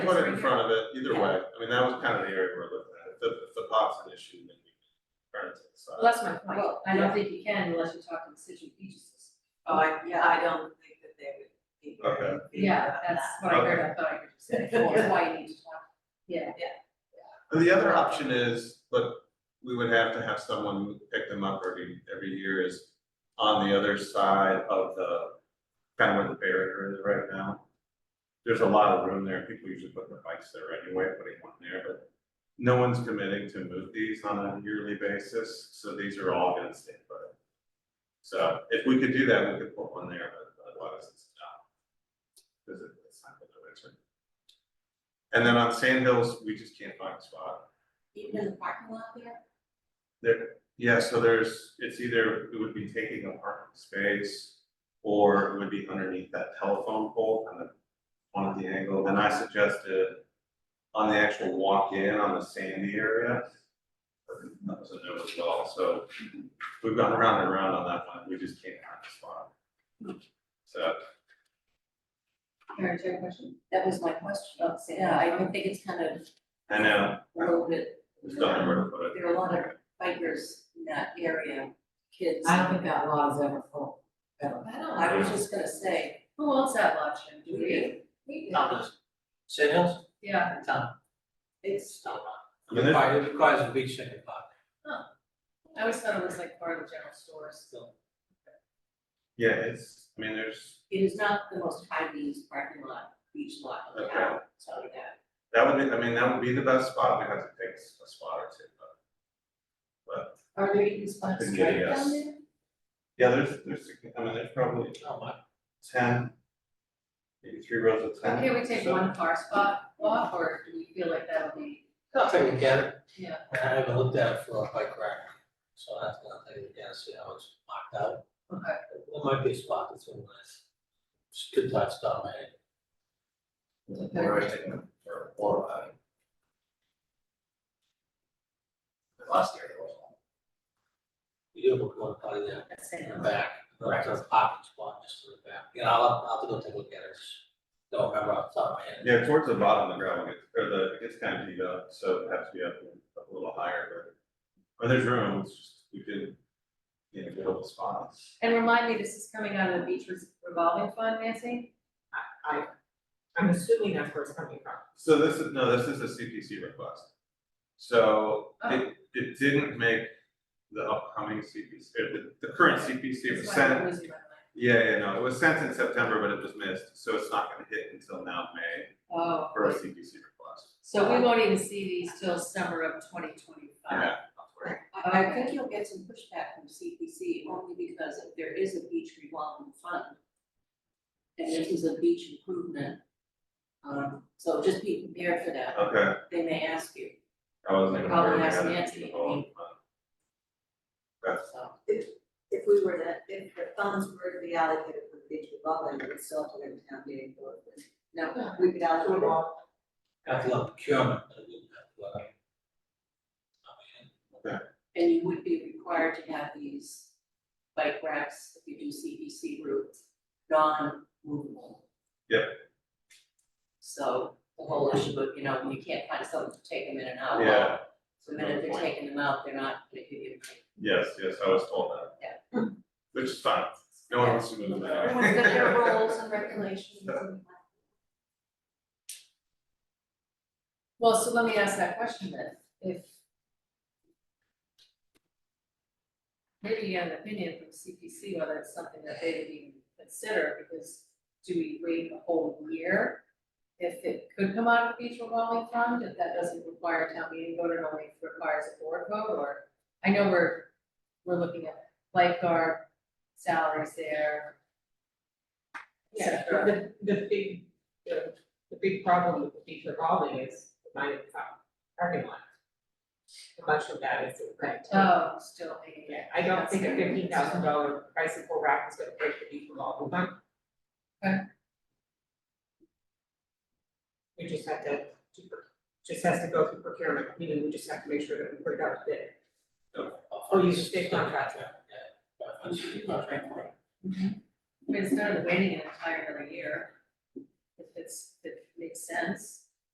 Put it in front of it, either way, I mean, that was kind of the area we're looking at, if the, if the pot's an issue, then we can turn it to the side. Well, that's my point. Well, I don't think you can unless you talk to the city agencies. Oh, I, yeah, I don't think that they would be very. big Yeah, about that's that. what I heard, I thought I heard you say, that's why you need to talk, yeah. And the other option is, but we would have to have someone pick them up every, every year is on the other side of the, kind of where the barrier is right now. There's a lot of room there, people usually put their bikes there anyway, putting one there, but no one's committing to move these on a yearly basis, so these are all gonna stay put. So if we could do that, we could put one there, but otherwise it's not. Because it's not gonna return. And then on Sand Hills, we just can't find a spot. Even in the parking lot there? Yeah, so there's, it's either, it would be taking a parking space, or it would be underneath that telephone pole, kind of on the angle, and I suggested on the actual walk-in on the sandy area. That was a no as well, so we've gone around and around on that one, we just can't find a spot. So, Karen, do you have a question? Oh, That was my question, I'd say, yeah, I would think it's kind of I know, a little bit, there's nothing where to put it. there are a lot of bikers in that area, kids. I don't think that lot is ever full, ever. I don't, I was just gonna say, who owns that lot, Jim, do we? We We do. Thomas. Sand Hills? Yeah, Tom. it's, I mean, It there's- requires- it requires a big second pot. I always thought it was like part of the general store still. yeah, it's, I mean, there's, it is not the most highly used parking lot, beach lot in town, so that. that would be, I mean, that would be the best spot, we have to pick a spot or two, but. Are there even spots Been right getting us. down there? Yeah, there's, there's, I mean, there's probably Oh, my. ten, maybe three rows of ten. Can we take so- one car spot off, or do you feel like that'll be, I'll take a gander. yeah, I haven't looked at it for a bike rack, so I have to I'll take a gander, see how it's marked out. okay. There might be a spot that's really nice. Just good thoughts, Tom, man. Or I take them for four, I mean. Last year. it was one. You do have a corner potty there That's in it. the back, right, there's a parking spot just in the back. You know, I'll, I'll have to go take a look at it. Just Don't remember off the top of my head. Yeah, towards the bottom, the gravel gets, or the, it gets kind of beat up, so it has to be up a little higher, but, or there's room, it's just, we could, you know, get all the spots. And remind me, this is coming out of the beach revolving fund, Nancy? I, I'm assuming that's where it's coming from. So this is, no, this is a CPC request. So Oh. it, it didn't make the upcoming CPC, or the, the current CPC was That's why sent. I'm losing my mind. Yeah, yeah, no, it was sent in September, but it was missed, so it's not gonna hit until now May Oh, for a CPC request. so we won't even see these till summer of twenty twenty-five. Yeah, Ah. I, I think you'll get some pushback from CPC only because if there is a beach revolving fund. And this is a beach improvement. Um, so just be prepared for that, okay, they may ask you, I wasn't even aware Uh, Probably we ask had it. Nancy, I Oh, mean- so. if, if we were to, if the funds were to be allocated for the beach revolving, we would still have to go to town meeting for it. No, we could allocate all, Got the procurement. but I didn't have the, uh, And you would be required to have these bike racks, if you do CPC routes, non-movable. Yep. So the whole issue of, you know, when you can't find someone to take them in and out. well, Yeah, So the minute Good they're point. taking them out, they're not gonna give you. yes, yes, I was told that. Yeah. Which is fine, no one wants to move them out. everyone's got their rules and regulations and. Well, so let me ask that question then, if. Maybe you have an opinion from CPC whether it's something that they would even consider, because do we wait a whole year? If it could come out of the beach revolving fund, if that doesn't require a town meeting vote, it only requires a board vote, or, I know we're, we're looking at lifeguard salaries there. et Yeah, cetera. but the, the big, the, the big problem with the beach revolving is the money that's out, parking lot. A bunch of that is the rent. Oh, still paying. Yeah, I don't think a fifteen thousand dollar bicycle rack is gonna break the beach revolving fund. Okay. We just have to, just has to go through procurement, meaning we just have to make sure that we put it out to bid. Oh, you just picked on that. Yeah. I'm sure you got that. I mean, it's better than waiting an entire another year, if it's, if it makes sense.